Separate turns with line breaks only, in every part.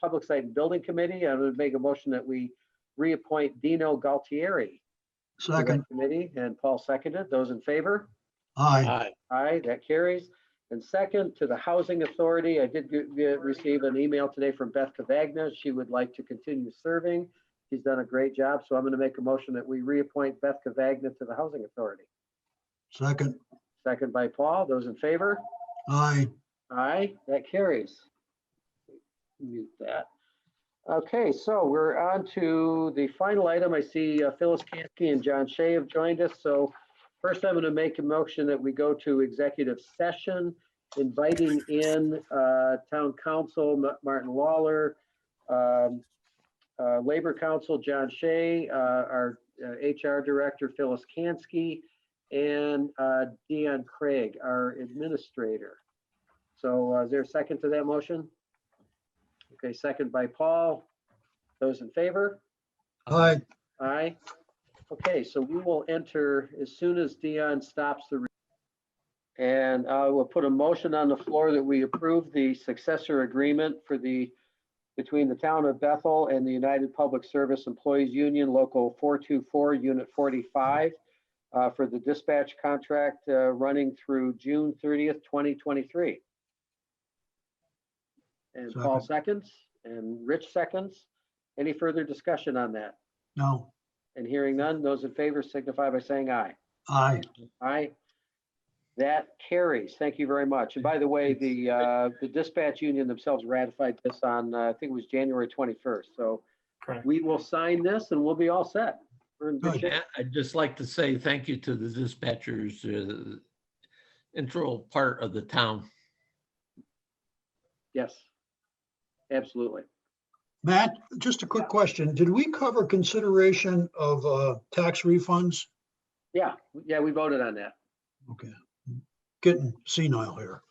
Public Site and Building Committee. I would make a motion that we reappoint Dino Galtieri to
Second,
that committee, and Paul seconded. Those in favor?
aye.
Aye.
Aye, that carries. And second, to the Housing Authority, I did get- get- receive an email today from Beth Cavagna. She would like to continue serving. She's done a great job, so I'm going to make a motion that we reappoint Beth Cavagna to the Housing Authority.
Second,
Second by Paul. Those in favor?
aye.
Aye, that carries. Mute that. Okay, so we're on to the final item. I see uh, Phyllis Kansky and John Shea have joined us, so first I'm going to make a motion that we go to executive session, inviting in uh, Town Council Ma- Martin Lawler, um, uh, Labor Council John Shea, uh, our uh, HR Director Phyllis Kansky, and uh, Deanne Craig, our Administrator. So uh, is there a second to that motion? Okay, second by Paul. Those in favor?
Aye,
Aye. Okay, so we will enter as soon as Dion stops the. re- And I will put a motion on the floor that we approve the successor agreement for the, between the town of Bethel and the United Public Service Employees Union Local 424, Unit 45, uh, for the dispatch contract uh, running through June 30th, 2023. And Paul seconds and Rich seconds. Any further discussion on that?
no,
And hearing none, those in favor signify by saying aye.
aye.
Aye. That carries. Thank you very much. And by the way, the, uh, the dispatch union themselves ratified this on, uh, I think it was January 21st. So
Correct.
we will sign this and we'll be all set. We're in good
Good.
shape.
Yeah, I'd just like to say thank you to the dispatchers, uh, the integral part of the town.
Yes. Absolutely.
Matt, just a quick question. Did we cover consideration of uh, tax refunds?
Yeah, yeah, we voted on that.
Okay, getting senile here.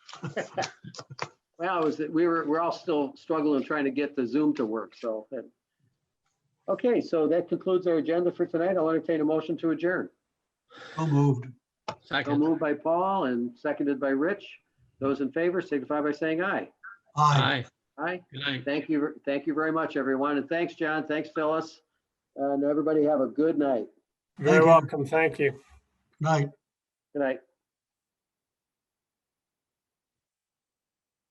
Well, it was, we were, we're all still struggling trying to get the Zoom to work, so. that- Okay, so that concludes our agenda for tonight. I'll entertain a motion to adjourn.
So moved.
So
Second,
moved by Paul and seconded by Rich. Those in favor signify by saying aye.
Aye,
aye,
Aye.
good night.
Thank you, thank you very much, everyone. And thanks, John. Thanks, Phyllis. And everybody have a good night.
Very
you.
welcome. Thank you.
night.
Good night.